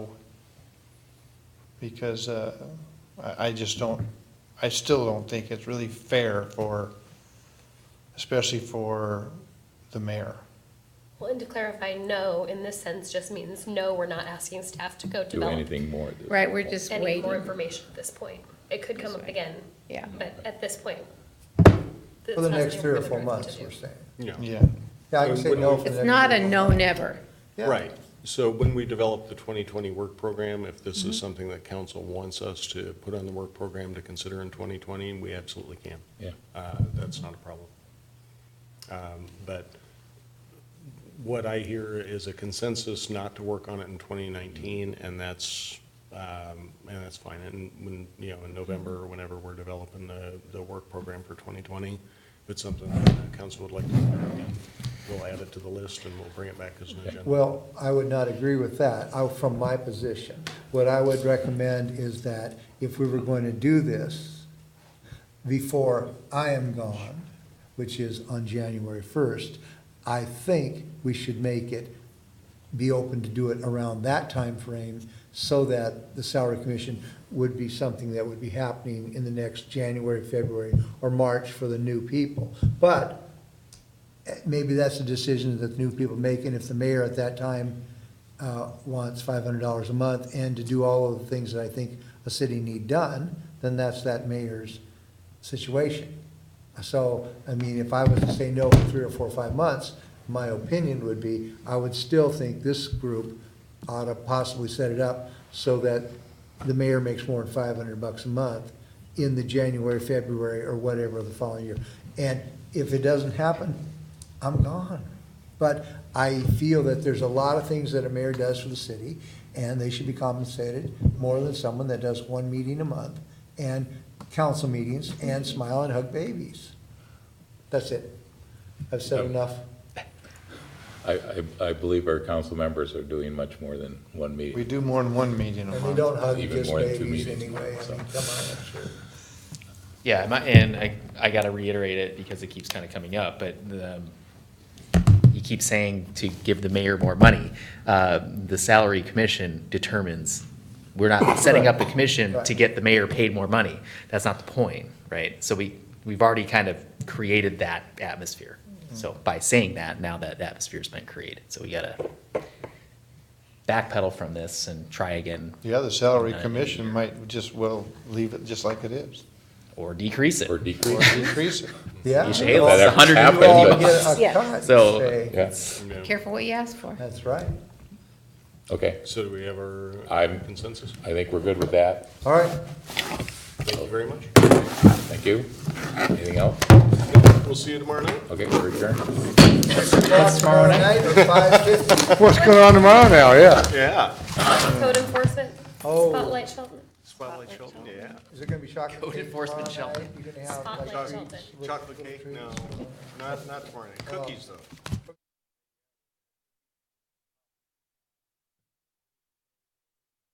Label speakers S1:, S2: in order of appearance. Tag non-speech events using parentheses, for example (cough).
S1: because uh, I I just don't, I still don't think it's really fair for, especially for the mayor.
S2: Well, and to clarify, no, in this sense, just means no, we're not asking staff to go
S3: do
S2: develop
S3: anything more. at this
S4: Right, we're
S3: point.
S4: just
S2: any more
S4: waiting,
S2: information at this point. It could come up again,
S4: yeah.
S2: but at this point. it's
S5: For the
S2: not
S5: next
S2: something
S5: three or
S2: we're
S5: four
S2: gonna direct
S5: months,
S2: them
S5: we're
S2: to do.
S5: saying.
S1: Yeah,
S5: Yeah, I can say no for the
S4: It's
S5: next
S4: not
S5: three
S4: a
S5: or four
S4: no
S5: months.
S4: never.
S5: Yeah.
S6: Right. So when we develop the 2020 work program, if this is something that council wants us to put on the work program to consider in 2020, we absolutely can.
S3: Yeah.
S6: Uh, That's not a problem. Um, But what I hear is a consensus not to work on it in 2019, and that's, um, and that's fine. And when, you know, in November, or whenever we're developing the, the work program for 2020, if it's something that council would like to, we'll add it to the list and we'll bring it back as an agenda.
S5: Well, I would not agree with that, I, from my position. What I would recommend is that if we were going to do this before I am gone, which is on January first, I think we should make it, be open to do it around that time frame, so that the salary commission would be something that would be happening in the next January, February, or March for the new people. But eh, maybe that's a decision that the new people make, and if the mayor at that time uh, wants five hundred dollars a month and to do all of the things that I think a city need done, then that's that mayor's situation. So, I mean, if I was to say no for three or four or five months, my opinion would be, I would still think this group ought to possibly set it up so that the mayor makes more than five hundred bucks a month in the January, February, or whatever of the following year. And if it doesn't happen, I'm gone. But I feel that there's a lot of things that a mayor does for the city, and they should be compensated more than someone that does one meeting a month, and council meetings, and smile and hug babies. That's it. I've said enough.
S3: I, I, I believe our council members are doing much more than one
S1: we
S3: meeting.
S1: do more than one meeting a
S5: And they
S1: month.
S5: don't hug
S3: Even
S5: just
S3: more than two
S5: babies
S3: meetings,
S5: anyway. I
S3: so.
S5: mean, come on, I'm sure.
S7: Yeah, my, and I, I gotta reiterate it because it keeps kind of coming up, but the, you keep saying to give the mayor more money. Uh, the salary commission determines,
S5: (coughs)
S7: we're not setting up the commission to
S5: Right.
S7: get the mayor paid more money. That's not the point, right? So we, we've already kind of created that atmosphere.
S5: Mm-hmm.
S7: So by saying that, now that atmosphere's been created, so we gotta backpedal from this and try again
S1: The other salary commission might just, well, leave it just like it is,
S7: or decrease it.
S3: Or
S1: or
S3: decrease.
S1: increase it.
S5: Yeah.
S7: You should
S5: you
S7: hail
S5: all-
S7: us,
S3: That ever
S7: 150
S5: you all
S3: happened,
S5: get a
S4: Yeah.
S5: cut,
S7: So-
S5: say.
S3: Yeah,
S6: Yeah.
S4: Careful what you ask for.
S5: That's right.
S3: okay.
S6: So do we have our
S3: I'm-
S6: consensus?
S3: I think we're good with that.
S5: All right.
S6: Thank you very much.
S3: Thank you. Anything else?
S6: We'll see you tomorrow night.
S3: Okay, we're adjourned.
S5: Tomorrow night at 5:50.
S1: What's going on tomorrow now, yeah?
S6: Yeah.
S2: Code enforcement,
S5: Oh,
S2: spotlight Sheldon,
S6: Spotlight Chilton, yeah.
S5: is it gonna be chocolate
S7: Code
S5: cake
S7: enforcement
S5: tomorrow
S7: shelter.
S5: night? You're gonna have, like,
S2: spotlight Sheldon.
S6: Chocolate cake? No, not, not tomorrow night. Cookies, though.